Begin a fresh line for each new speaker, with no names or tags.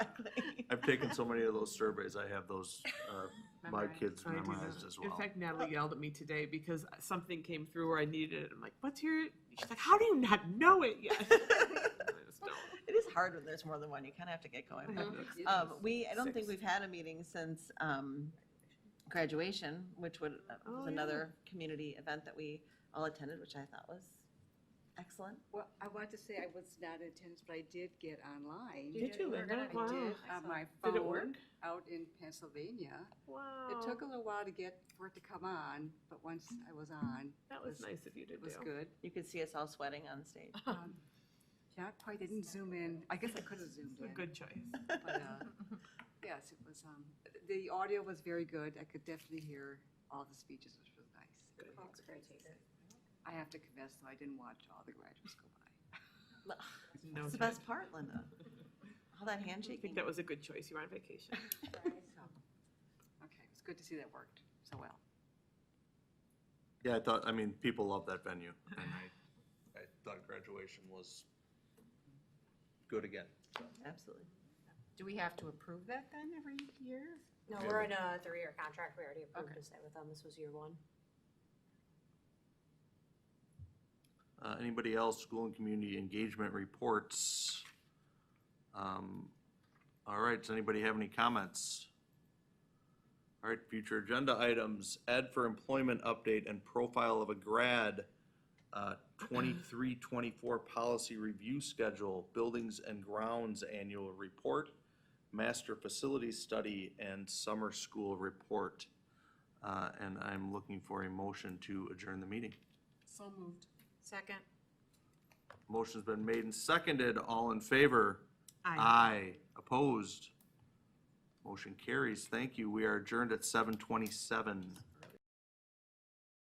I've taken so many of those surveys, I have those, uh, my
Memorized.
kids
I do
memorized
that.
as
In
well.
fact, Natalie yelled at me today because something came through where I needed it. I'm like, what's your, she's like, how do you not know it yet? I just don't.
It is hard when there's more than one. You kind of have to get going. but, Um, we, I don't think
Mm-hmm. Six.
we've had a meeting since, um, graduation, which would, uh,
Oh,
was
yeah.
another community event that we all attended, which I thought was excellent.
Well, I want to say I was not in attendance, but I did get online.
Did you,
were gonna-
Linda?
I
Wow.
did on Oh my phone.
Did it work? Oh.
Out in Pennsylvania.
Wow.
It took a little while to get, for it to come on, but once I was on,
That was nice of you to do.
it was good.
You could see us all sweating on stage.
Um, Not quite, I didn't zoom in. I guess I could have zoomed
A
in.
good choice.
but, uh, Yes, it was, um, the audio was very good. I could definitely hear all the speeches, which was nice. I have to confess, though, I didn't watch all the graduates go by.
No
It's the
judge.
best part, Linda. All that
I think
handshaking.
that was a good choice. You were on vacation.
So, Okay, it's good to see that worked so well.
Yeah, I thought, I mean, people love that venue. and I I thought graduation was good again.
Absolutely.
Do we have to approve that then every year?
No,
Yeah.
we're in a three-year contract, we already approved this with them, this was year one.
Uh, Anybody else, school and community engagement reports? Um, All right, does anybody have any comments? All right, future agenda items, Ed for employment update and profile of a grad, uh, 23-24 policy review schedule, buildings and grounds annual report, master facility study, and summer school report. Uh, And I'm looking for a motion to adjourn the meeting.
So moved.
Second.
Motion's been made and seconded. All in favor? Aye. Opposed? Motion carries. Thank you. We are adjourned at seven twenty-seven.